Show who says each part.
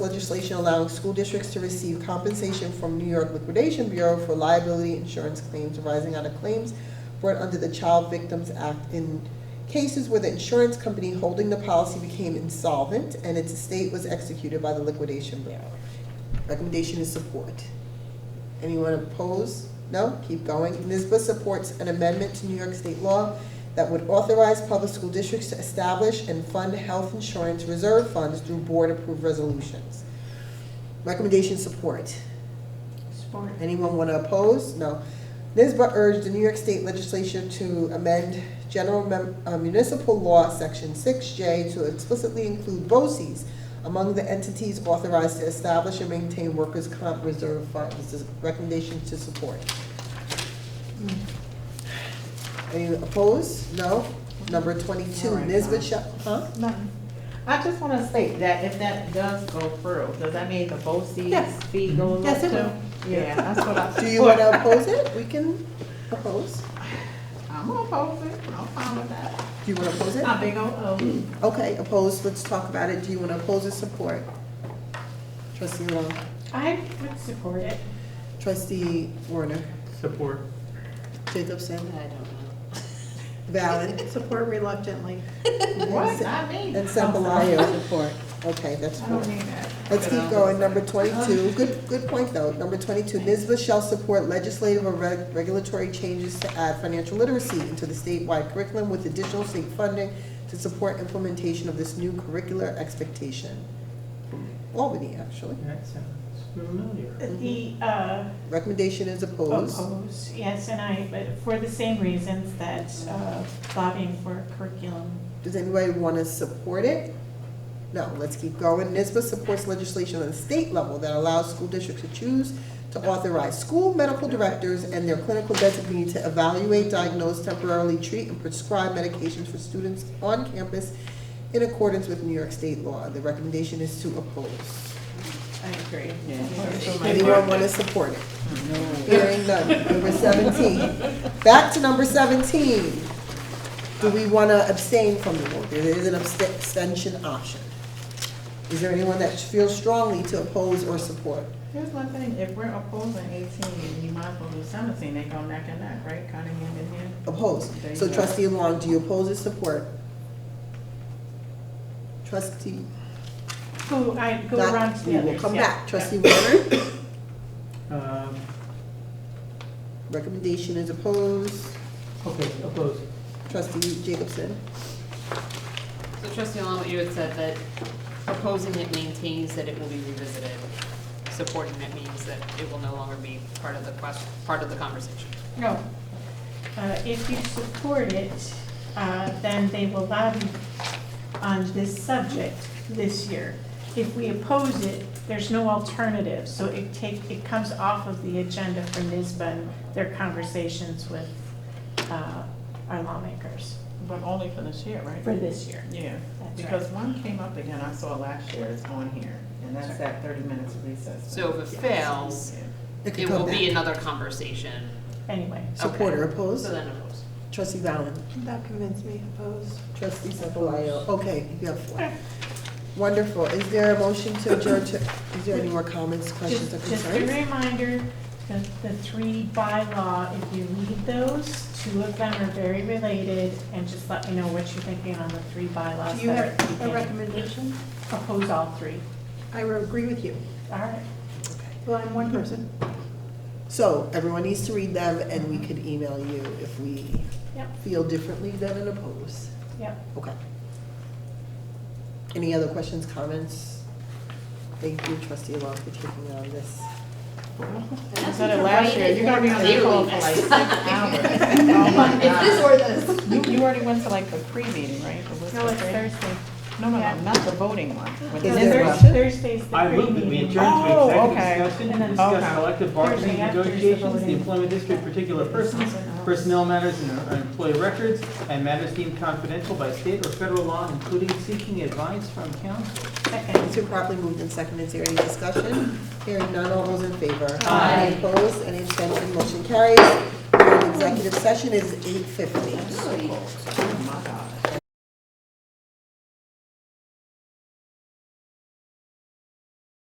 Speaker 1: legislation allowing school districts to receive compensation from New York Liquidation Bureau for liability insurance claims arising out of claims brought under the Child Victims Act in cases where the insurance company holding the policy became insolvent and its estate was executed by the liquidation bureau. Recommendation is support. Anyone oppose? No? Keep going. NISBA supports an amendment to New York State law that would authorize public school districts to establish and fund health insurance reserve funds through board-approved resolutions. Recommendation support.
Speaker 2: Support.
Speaker 1: Anyone want to oppose? No. NISBA urged the New York State legislature to amend General Mem- uh, Municipal Law, Section 6J, to explicitly include BOCES among the entities authorized to establish and maintain workers' comp reserve funds. This is recommendation to support. Any opposed? No. Number 22,
Speaker 2: All right,
Speaker 1: NISBA
Speaker 2: fine.
Speaker 1: shall, huh?
Speaker 2: Nothing. I just want to state that if that does go through, does that mean the BOCES
Speaker 1: Yes.
Speaker 2: fee goes up?
Speaker 1: Yes, it
Speaker 2: too?
Speaker 1: will.
Speaker 2: Yeah, that's what I.
Speaker 1: Do you want to oppose it? We can oppose.
Speaker 2: I'm gonna oppose it, I'm fine with that.
Speaker 1: Do you want to oppose it?
Speaker 2: I'm big on O's.
Speaker 1: Okay, opposed, let's talk about it. Do you want to oppose or support? Trustee Long,
Speaker 2: I would support it.
Speaker 1: trustee Warner,
Speaker 3: Support.
Speaker 1: Jacobson,
Speaker 4: I don't know.
Speaker 1: Valen,
Speaker 5: Support reluctantly.
Speaker 2: What, not me.
Speaker 1: and Sambalayo support. Okay, that's
Speaker 2: I
Speaker 1: four.
Speaker 2: don't mean that.
Speaker 1: Let's keep going, number twenty-two, good, good point though, number twenty-two, NISBA shall support legislative or reg- regulatory changes to add financial literacy into the statewide curriculum with additional state funding to support implementation of this new curricular expectation. From Albany, actually.
Speaker 3: That sounds familiar.
Speaker 6: The, uh,
Speaker 1: Recommendation is opposed.
Speaker 6: opposed, yes, and I, but for the same reasons that uh, lobbying for curriculum.
Speaker 1: Does anybody want to support it? No, let's keep going. NISBA supports legislation on the state level that allows school districts to choose to authorize school medical directors and their clinical designee to evaluate, diagnose, temporarily treat, and prescribe medications for students on campus in accordance with New York state law. The recommendation is to oppose.
Speaker 2: I agree.
Speaker 1: Anyone want to support it? Hearing none. Number seventeen. Back to number seventeen. Do we want to abstain from the vote? There is an abst- abstention option. Is there anyone that feels strongly to oppose or support?
Speaker 2: Here's one thing, if we're opposing eighteen, you might as well do seventeen, they go neck and neck, right, kind of hand in hand.
Speaker 1: Oppose. So trustee Long, do you oppose or support? Trustee,
Speaker 6: Go, I, go around
Speaker 1: not,
Speaker 6: to
Speaker 1: we
Speaker 6: the
Speaker 1: will
Speaker 6: others,
Speaker 1: come
Speaker 6: yeah,
Speaker 1: back.
Speaker 6: yeah.
Speaker 1: Trustee Warner,
Speaker 3: Um,
Speaker 1: recommendation is opposed.
Speaker 3: Okay, opposed.
Speaker 1: Trustee Jacobson,
Speaker 4: So trustee Allen, what you had said, that proposing it maintains that it will be revisited. Supporting it means that it will no longer be part of the question, part of the conversation.
Speaker 6: No. Uh, If you support it, uh, then they will lobby on this subject this year. If we oppose it, there's no alternative, so it take, it comes off of the agenda for NISBA and their conversations with uh, our lawmakers
Speaker 2: But only for this year, right?
Speaker 6: for this year.
Speaker 2: Yeah,
Speaker 6: That's
Speaker 2: because one came up again, I saw last year, it's on here, and that's that thirty minutes recess.
Speaker 4: So if it fails,
Speaker 1: it
Speaker 4: it
Speaker 1: can
Speaker 4: will
Speaker 1: come
Speaker 4: be
Speaker 1: back.
Speaker 4: another conversation.
Speaker 6: Anyway,
Speaker 1: Support or
Speaker 4: So
Speaker 1: oppose?
Speaker 4: then opposed.
Speaker 1: Trustee Valen.
Speaker 5: That convinced me, opposed.
Speaker 1: Trustee Sefalayo, okay, you have four. Wonderful, is there a motion to adjourn to, is there any more comments, questions,
Speaker 6: just,
Speaker 1: or
Speaker 6: just a
Speaker 1: concerns?
Speaker 6: reminder, the, the three bylaw, if you read those, two of them are very related, and just let me know what you're thinking on the three bylaws.
Speaker 5: Do you
Speaker 6: that
Speaker 5: have
Speaker 6: you
Speaker 5: a
Speaker 6: can
Speaker 5: recommendation?
Speaker 6: Oppose all three.
Speaker 5: I would agree with you.
Speaker 6: All right.
Speaker 5: Well, I'm one person.
Speaker 1: So, everyone needs to read them, and we could email you if we
Speaker 6: Yep.
Speaker 1: feel differently than an oppose.
Speaker 6: Yep.
Speaker 1: Okay. Any other questions, comments? Thank you, trustee Long, for taking on this.
Speaker 2: Instead of last year, you're gonna be on the call for like six hours. Oh my God.
Speaker 4: or this.
Speaker 2: You, you already went to like the pre-meeting, right? The whisper
Speaker 6: No, it's
Speaker 2: pre-
Speaker 6: Thursday.
Speaker 2: No, no,
Speaker 6: yeah.
Speaker 2: no, not the voting one. When
Speaker 1: Is
Speaker 2: the-
Speaker 1: there
Speaker 6: Thurs-
Speaker 1: a-
Speaker 6: Thursday's the
Speaker 3: I move that we
Speaker 6: pre-meeting.
Speaker 3: adjourn to
Speaker 2: Oh,
Speaker 3: executive
Speaker 2: okay.
Speaker 3: discussion
Speaker 6: And
Speaker 3: to
Speaker 6: then- uh,
Speaker 3: discuss
Speaker 2: Okay.
Speaker 3: collective bargaining
Speaker 6: Thursday after is the
Speaker 3: negotiations, the
Speaker 6: voting.
Speaker 3: employment history of particular persons, personnel matters and uh, employee records, and matters deemed confidential by state or federal law, including seeking advice from counsel.
Speaker 1: It's
Speaker 6: Second.
Speaker 1: been properly moved and seconded, is there any discussion? Hearing none, all those in favor?
Speaker 4: Aye.
Speaker 1: Any opposed, any abstention, motion carries. We're in executive session, it is eight fifty.
Speaker 2: Oh my God.